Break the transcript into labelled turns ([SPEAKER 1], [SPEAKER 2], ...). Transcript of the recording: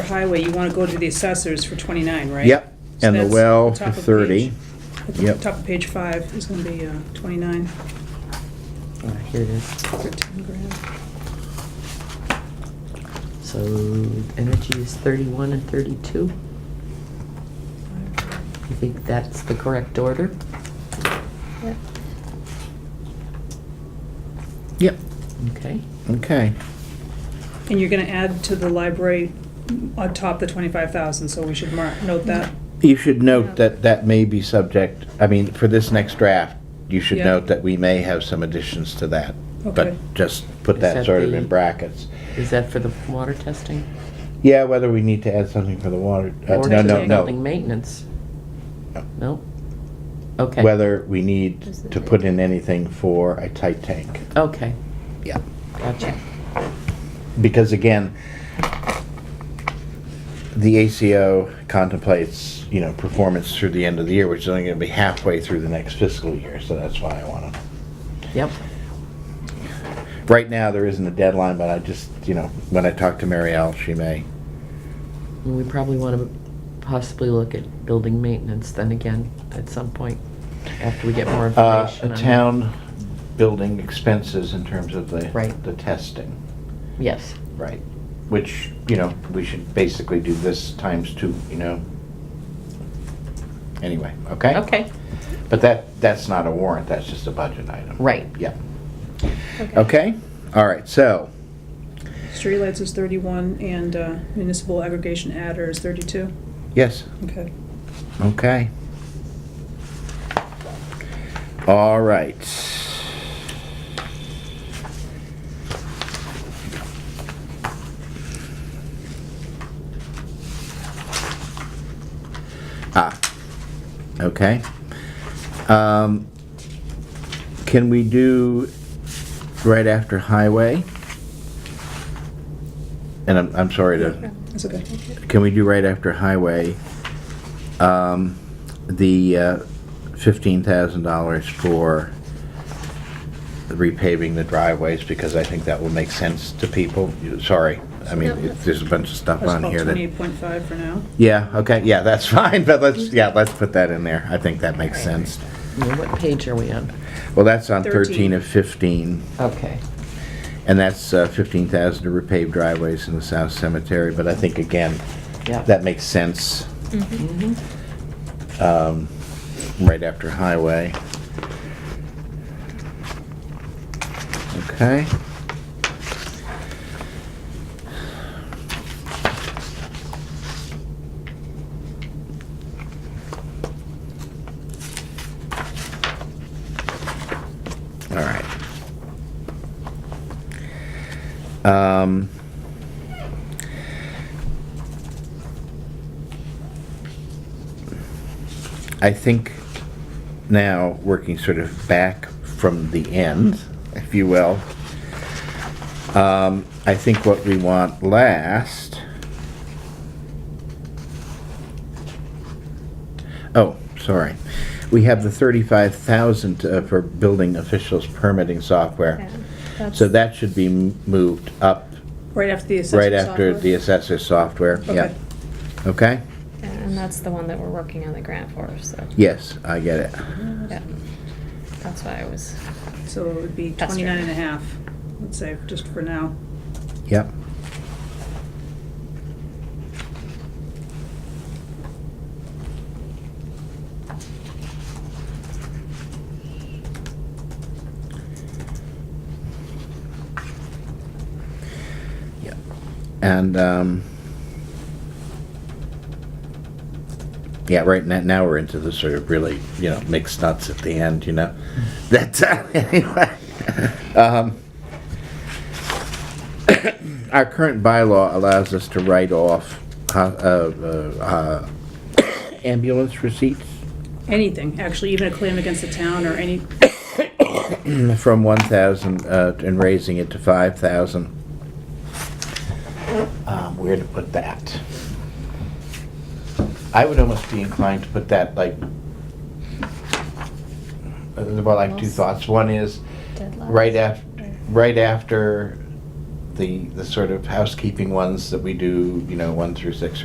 [SPEAKER 1] highway, you wanna go to the assessors for twenty-nine, right?
[SPEAKER 2] Yep,
[SPEAKER 1] So
[SPEAKER 2] and the
[SPEAKER 1] that's
[SPEAKER 2] well
[SPEAKER 1] top of
[SPEAKER 2] thirty.
[SPEAKER 1] page-
[SPEAKER 2] Yep.
[SPEAKER 1] Top of page five is gonna be, uh, twenty-nine
[SPEAKER 3] All right, here it is.
[SPEAKER 1] for ten grand.
[SPEAKER 3] So energy is 31 and 32. You think that's the correct order?
[SPEAKER 4] Yep.
[SPEAKER 2] Yep,
[SPEAKER 3] Okay.
[SPEAKER 2] okay.
[SPEAKER 1] And you're gonna add to the library on top the twenty-five thousand, so we should mark, note that.
[SPEAKER 2] You should note that that may be subject, I mean, for this next draft, you should
[SPEAKER 1] Yeah.
[SPEAKER 2] note that we may have some additions to that.
[SPEAKER 1] Okay.
[SPEAKER 2] But just put
[SPEAKER 3] Is
[SPEAKER 2] that
[SPEAKER 3] that
[SPEAKER 2] sort of
[SPEAKER 3] the-
[SPEAKER 2] in brackets.
[SPEAKER 3] Is that for the water testing?
[SPEAKER 2] Yeah, whether we need to add something for the water, uh,
[SPEAKER 3] Or
[SPEAKER 2] no,
[SPEAKER 3] just
[SPEAKER 2] no,
[SPEAKER 3] Building
[SPEAKER 2] no.
[SPEAKER 3] maintenance?
[SPEAKER 2] No.
[SPEAKER 3] No? Okay.
[SPEAKER 2] Whether we need
[SPEAKER 4] Is it-
[SPEAKER 2] to put in anything for a tight tank.
[SPEAKER 3] Okay,
[SPEAKER 2] Yeah.
[SPEAKER 3] gotcha.
[SPEAKER 2] Because again, the ACO contemplates, you know, performance through the end of the year, which is only gonna be halfway through the next fiscal year, so that's why I wanna.
[SPEAKER 3] Yep.
[SPEAKER 2] Right now, there isn't a deadline, but I just, you know, when I talk to Mary Al, she may.
[SPEAKER 3] And We probably want to possibly look at building maintenance then again at some point after we get
[SPEAKER 2] Uh,
[SPEAKER 3] more information. on it.
[SPEAKER 2] town building expenses in terms of the,
[SPEAKER 3] Right.
[SPEAKER 2] the testing,
[SPEAKER 3] Yes,
[SPEAKER 2] right? Which, you know, we should basically do this times two, you know? Anyway, okay?
[SPEAKER 3] okay,
[SPEAKER 2] But that, that's not a warrant, that's just a budget item.
[SPEAKER 3] right.
[SPEAKER 2] Yeah, okay, all right, so,
[SPEAKER 1] Streetlights is thirty-one and uh, municipal aggregation adder is thirty-two,
[SPEAKER 2] yes,
[SPEAKER 1] okay.
[SPEAKER 2] okay. All right. Ah, okay. Um, Can we do right after highway? And I'm, I'm sorry to
[SPEAKER 1] That's okay.
[SPEAKER 2] can we do right after highway, um, the uh, $15,000 for repaving the driveways, because I think that will make sense to people. You- Sorry, I mean, it- there's a bunch of stuff
[SPEAKER 1] That's
[SPEAKER 2] on
[SPEAKER 1] about
[SPEAKER 2] here
[SPEAKER 1] twenty-eight
[SPEAKER 2] that.
[SPEAKER 1] point five for now.
[SPEAKER 2] Yeah, okay, yeah, that's fine, but let's, yeah,
[SPEAKER 1] Mm-hmm.
[SPEAKER 2] let's put that in there. I think that makes sense.
[SPEAKER 3] Now, What page are we on?
[SPEAKER 2] Well, that's on 13
[SPEAKER 1] 13.
[SPEAKER 2] of 15,
[SPEAKER 3] Okay,
[SPEAKER 2] and that's uh, 15,000 to repave driveways in the South Cemetery, but I think, again,
[SPEAKER 3] yeah.
[SPEAKER 2] that makes sense.
[SPEAKER 3] Mhm.
[SPEAKER 2] um, right after highway. Okay. All right. Um, I think now, working sort of back from the end, if you will, um, I think what we want last. Oh, sorry. We have the 35,000 uh, for building officials permitting software. So that should be m- moved up
[SPEAKER 1] Right after the assessor
[SPEAKER 2] right after the
[SPEAKER 1] software.
[SPEAKER 2] assessor software. Yeah.
[SPEAKER 1] Okay.
[SPEAKER 2] Okay?
[SPEAKER 4] And that's the one that we're working on the grant for, so.
[SPEAKER 2] Yes, I get it.
[SPEAKER 4] Yep. That's why I was,
[SPEAKER 1] So it would be
[SPEAKER 4] That's
[SPEAKER 1] twenty-nine
[SPEAKER 4] right.
[SPEAKER 1] and a half, let's say, just for now.
[SPEAKER 2] Yep. Yep. And, um, yeah, right now, now we're into the sort of really, you know, mixed nuts at the end, you know? That, uh, anyway. Um, our current bylaw allows us to write off uh, uh, uh, ambulance receipts
[SPEAKER 1] Anything, actually, even a claim against the town or any,
[SPEAKER 2] from 1,000 uh, and raising it to 5,000. Um, Where to put that? I would almost be inclined to put that like, well, like two thoughts. One is,
[SPEAKER 4] Deadlines.
[SPEAKER 2] right after, right after the, the sort of housekeeping ones that we do, you know, one through six